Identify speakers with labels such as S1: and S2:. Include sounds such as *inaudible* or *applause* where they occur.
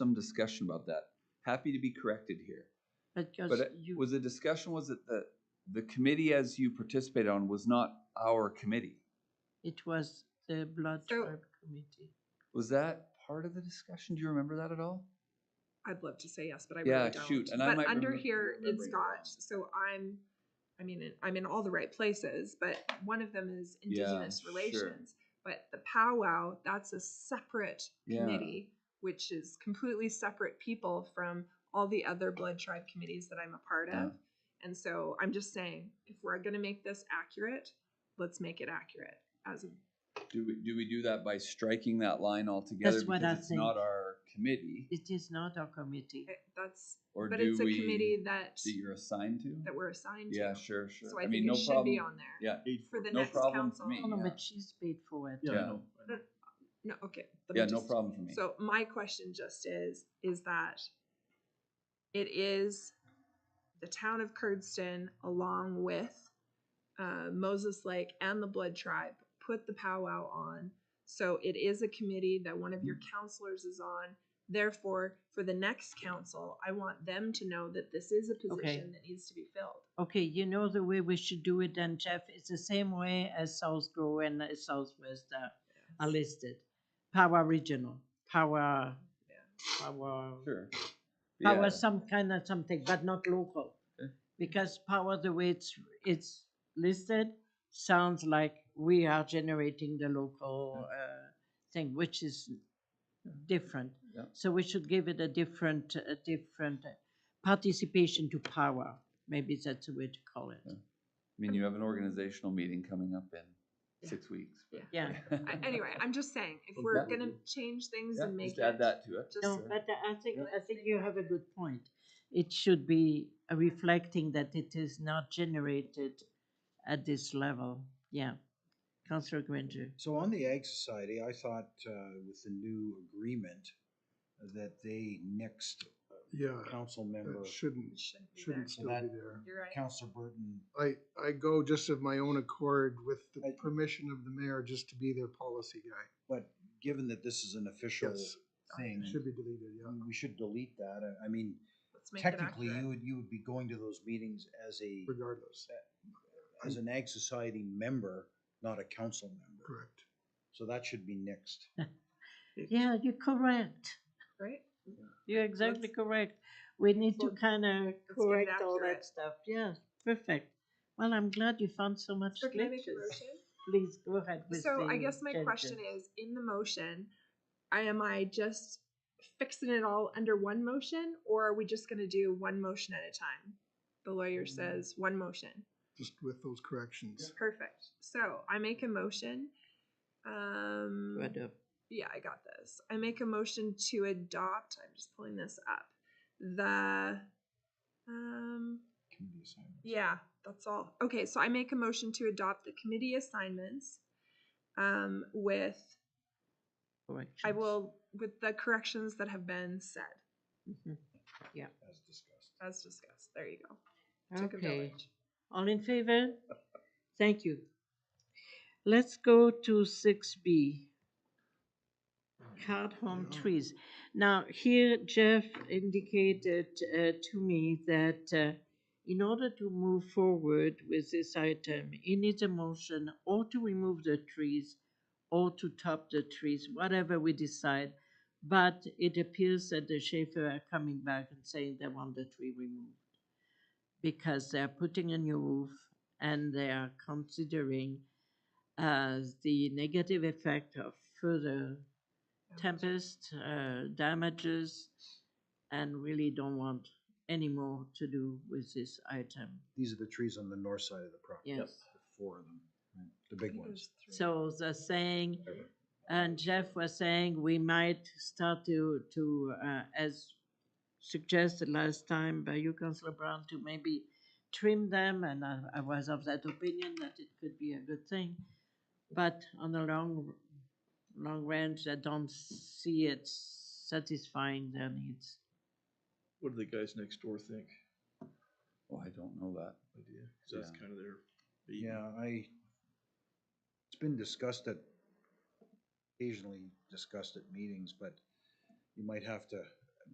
S1: discussion about that. Happy to be corrected here.
S2: Because
S1: But it
S2: you,
S1: was the discussion, was it the, the committee as you participated on was not our committee?
S2: it was the blood
S3: So-
S2: tribe committee.
S1: Was that part of the discussion? Do you remember that at all?
S3: I'd love to say yes, but I
S1: Yeah,
S3: really don't.
S1: shoot, and I
S3: but
S1: might
S3: under
S1: remem-
S3: here it's
S1: remembering it wrong.
S3: got so I'm, I mean I'm in all the right places, but one of them is
S1: Yeah,
S3: Indigenous
S1: sure.
S3: relations. But the powwow that's a separate
S1: Yeah.
S3: committee, which is completely separate people from all the other blood tribe committees that I'm a part
S1: Yeah.
S3: of. And so I'm just saying, if we're going to make this accurate, let's make it accurate as a
S1: Do we, do we do that by striking that line altogether?
S2: That's what
S1: because
S2: I
S1: it's Not
S2: think.
S1: our committee,
S2: It is not our committee.
S3: it- that's,
S1: or
S3: but
S1: do
S3: it's a committee
S1: we,
S3: that
S1: that you're assigned to?
S3: that we're assigned
S1: Yeah,
S3: to.
S1: sure, sure.
S3: So I,
S1: I
S3: think
S1: mean,
S3: it
S1: no
S3: should be
S1: problem.
S3: on there.
S1: Yeah,
S3: for the
S1: No
S3: next
S1: problem for
S3: council.
S1: me.
S2: No, no,
S1: Yeah.
S2: but she's paid for it.
S1: Yeah.
S4: Yeah.
S3: No, okay. let me
S1: yeah, no
S3: just-
S1: problem for me.
S3: So my question just is, is that it is the town of Curdston along with uh, Moses Lake and the Blood Tribe put the powwow on. So it is a committee that one of your
S1: Mm-hmm.
S3: counselors is on. Therefore, for the next council, I want them to know that this is a position that needs to be filled.
S2: Okay, you know the way we should do it then, Jeff, it's the same way as South Grow and uh, Southwest are- are listed. Power regional, power,
S3: Yeah.
S2: power,
S1: Sure. Yeah.
S2: power some kind of something, but not local.
S1: Okay.
S2: Because power, the way it's, it's listed, sounds like we are generating the local, uh, thing, which is different.
S1: Yeah.
S2: So we should give it a different, a different uh, participation to power. Maybe that's the way to call it.
S1: Yeah. I mean, you have an organizational meeting coming up in
S3: Yeah.
S1: six weeks. but-
S2: Yeah.
S3: I- Anyway, I'm just saying, if we're
S1: Exactly.
S3: gonna change things
S1: Yeah,
S3: and make
S1: Just
S3: it.
S1: add that to it.
S3: just-
S2: No,
S1: Sure.
S2: but I think,
S1: Yeah.
S2: I think you have a good point. It should be reflecting that it is not generated at this level. Yeah. Councillor Granger.
S4: So on the Ag Society, I thought uh, with the new agreement uh, that they next
S5: Yeah,
S4: council member,
S5: it shouldn't,
S3: it shouldn't be there.
S5: shouldn't still be there.
S3: You're right.
S4: Councilor Burton.
S5: I, I go just of my own accord with the
S4: I-
S5: permission of the mayor just to be their policy guy.
S4: But given that this is an official
S5: Yes.
S4: thing,
S5: It should be deleted, yeah.
S4: we should delete that. Uh, I- I mean,
S3: Let's make it
S4: technically,
S3: accurate.
S4: you would, you would be going to those meetings as a,
S5: Regardless,
S4: as an Ag Society member, not a council member.
S5: correct.
S4: So that should be next.
S2: Yeah, you're correct.
S3: Right?
S2: You're exactly
S3: Let's-
S2: correct. We need to
S3: Let's-
S2: kind of
S3: it
S2: correct all
S3: accurate.
S2: that stuff. Yes, perfect. Well, I'm glad you found so much
S3: So can I make a
S2: glitches.
S3: motion?
S2: Please go ahead *laughs* with
S3: So I
S2: the
S3: guess my question
S2: changes.
S3: is, in the motion, I am I just fixing it all under one motion, or are we just gonna do one motion at a time? The
S4: Mm.
S3: lawyer says one motion.
S5: Just with those corrections.
S3: Perfect. So I make a motion. Um.
S2: To adopt.
S3: yeah, I got this. I make a motion to adopt. I'm just pulling this up. The um
S4: Committee assignments.
S3: yeah, that's all. Okay, so I make a motion to adopt the committee assignments um with I
S2: Corrections.
S3: will with the corrections that have been said
S2: Mhm.
S4: As discussed.
S3: as discussed. There you go. Took a
S2: Okay.
S3: village.
S2: All in favor? Thank you. Let's go to six B. Card home
S5: Yeah.
S2: trees. Now, here Jeff indicated uh, to me that uh, in order to move forward with this item, he needs a motion or to remove the trees or to top the trees, whatever we decide. But it appears that the Schaefer are coming back and saying they want the tree removed because they're putting a new roof and they are considering uh, the negative effect of further tempest uh, damages and really don't want any more to do with this item.
S4: These are the trees on the north side of the property.
S2: Yes.
S4: The Four of them, right? the big ones.
S2: So they're saying, and Jeff was saying, we might start to, to, uh, as suggested last time by you, Councillor Brown, to maybe trim them, and I, I was of that opinion that it could be a good thing. But on the long, long range, I don't see it satisfying their needs.
S6: What do the guys next door think?
S1: Oh, I don't know that.
S6: Idea, so that's
S1: Yeah.
S6: kind of their. baby.
S4: Yeah, I, it's been discussed at, occasionally discussed at meetings, but you might have to